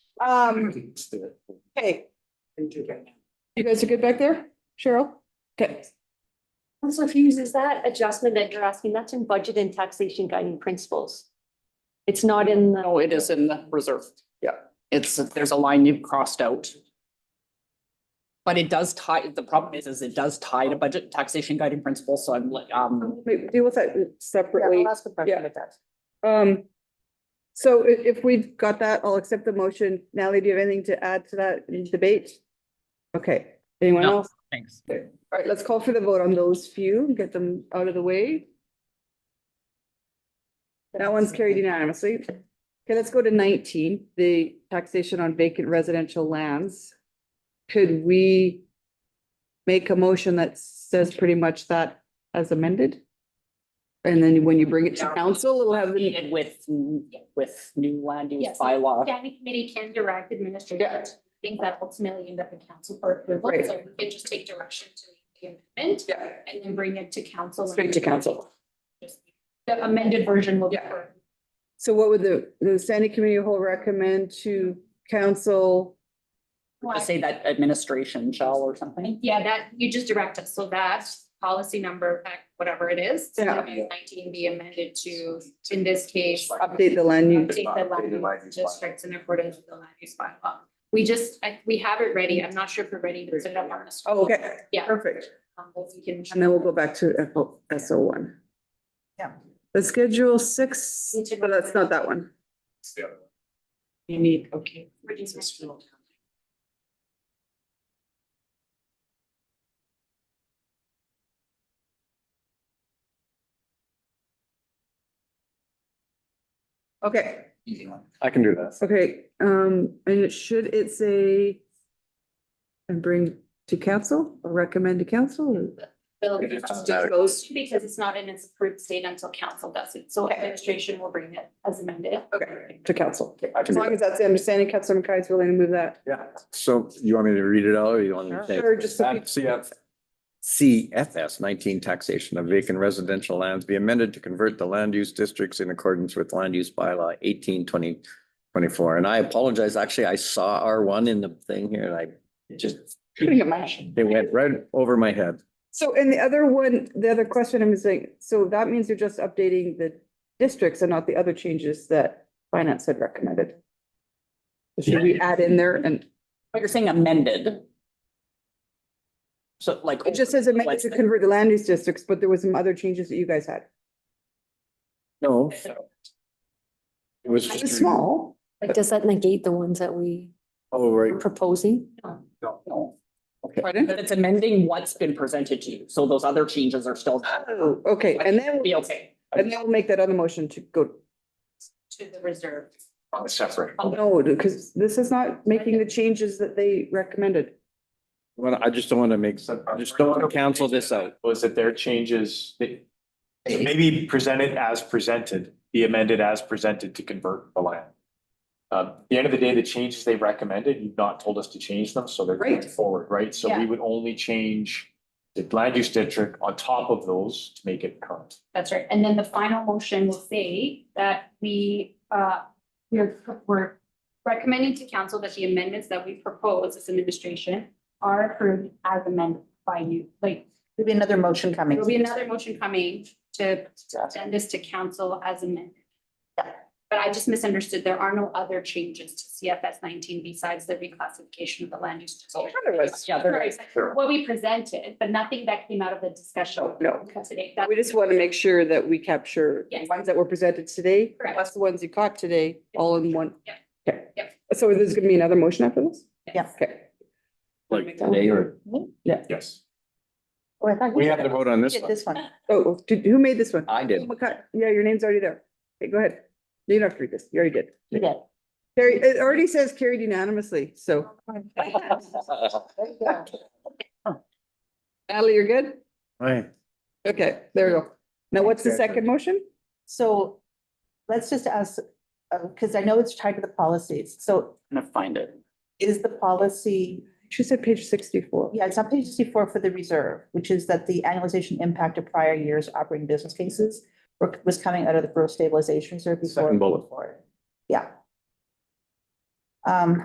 Um, hey. You guys are good back there? Cheryl? Okay, Counselor Hughes, is that adjustment that you're asking, that's in budget and taxation guiding principles? It's not in the, No, Oh, it is in the reserve. Yeah. It's, there's a line you've crossed out. But it does tie, the problem is, is it does tie to budget taxation guiding principles, so I'm like, um, we deal with that separately. That's the Yeah. question it does. Um, so i- if we've got that, I'll accept the motion. Natalie, do you have anything to add to that debate? Okay, anyone No. else? thanks. All right, let's call for the vote on those few, get them out of the way. That one's carried unanimously. Okay, let's go to nineteen, the taxation on vacant residential lands. Could we make a motion that says pretty much that as amended? And then when you bring it to council, it'll have, the- And with, with new land use Yes. bylaw. Standing committee can direct Yeah. administration, things that ultimately end up in council for approval, Right. so we can just take direction to the amendment. Yeah. And then bring it to council. Straight to council. The amended version will be. Yeah. for- so what would the, the standing committee will recommend to council? Just say that administration shall or something. Yeah, that, you just direct us, so that policy number, uh, whatever it is, Yeah. nineteen be amended to, in this case. Update the land use. Update the land use districts in accordance with the land use bylaw. We just, I, we have it ready, I'm not sure if we're ready to set it up on the. Oh, okay. Yeah. Perfect. Um, but we can. And then we'll go back to SO one. Yeah. The schedule six, Need to- but that's not that one. You need, okay. Reduce my- Okay, I can do that. okay, um, and it should it say and bring to council or recommend to council? or- Bill, It is just automatic. goes because it's not in its approved state until council does it, so administration will bring it as amended. Okay, to council. I can As do long that. as that's the understanding, Councilor McKay is willing to move that. Yeah. So you want me to read it out or you want me to? Sure, just so people- CF. CFS nineteen taxation of vacant residential lands be amended to convert the land use districts in accordance with land use bylaw eighteen twenty twenty-four. And I apologize, actually, I saw R one in the thing here and I it just, it went right over my head. So, and the other one, the other question I'm saying, so that means you're just updating the districts and not the other changes that finance had recommended. Should we add in there and But you're saying amended. So like. It just says it meant What's to the- convert the land use districts, but there was some other changes that you guys had. No. It was. It was small. Like, does that negate the ones that we Oh, right. were proposing? No. Pardon? But it's amending what's been presented to you, so those other changes are still. Oh, okay, and then, Be okay. and then we'll make that other motion to go, To the reserve. Separate. no, because this is not making the changes that they recommended. Well, I just don't want to make, I just don't want to cancel this out. Was that their changes, they maybe presented as presented, be amended as presented to convert the land. Um, at the end of the day, the changes they recommended, you've not told us to change them, so they're going Right. forward, right? So we Yeah. would only change the land use district on top of those to make it current. That's right, and then the final motion will say that we, uh, we're, we're recommending to council that the amendments that we propose as an administration are approved as amended by you, like, There'll be another motion coming. there'll be another motion coming to send this to council as amended. But I just misunderstood, there are no other changes to CFS nineteen besides the reclassification of the land use. district. Yeah, there is. What we presented, but nothing that came out of the Oh, discussion No. today. That's We just want to make sure that we capture the Yes. ones that were presented today, Correct. plus the ones you caught today, all in one. Yeah. Okay. Yeah. So there's gonna be another motion after this? Yeah. Okay. Like today or? Yes. We have to vote on this Did one. this one. Oh, did- who made this one? I did. McCut- Yeah, your name's already there. Okay, go ahead. You don't have to read this. You already did. You did. Carrie, it already says carried unanimously, so Natalie, you're good? Aye. Okay, there we go. Now, what's the Okay. second motion? So let's just ask, uh, because I know it's tied to the policies. So I'm gonna find it. is the policy, She said page sixty-four. yeah, it's on page sixty-four for the reserve, which is that the annualization impact of prior years operating business cases were- was coming out of the growth stabilization reserve before. Second bullet. before. Yeah. Um,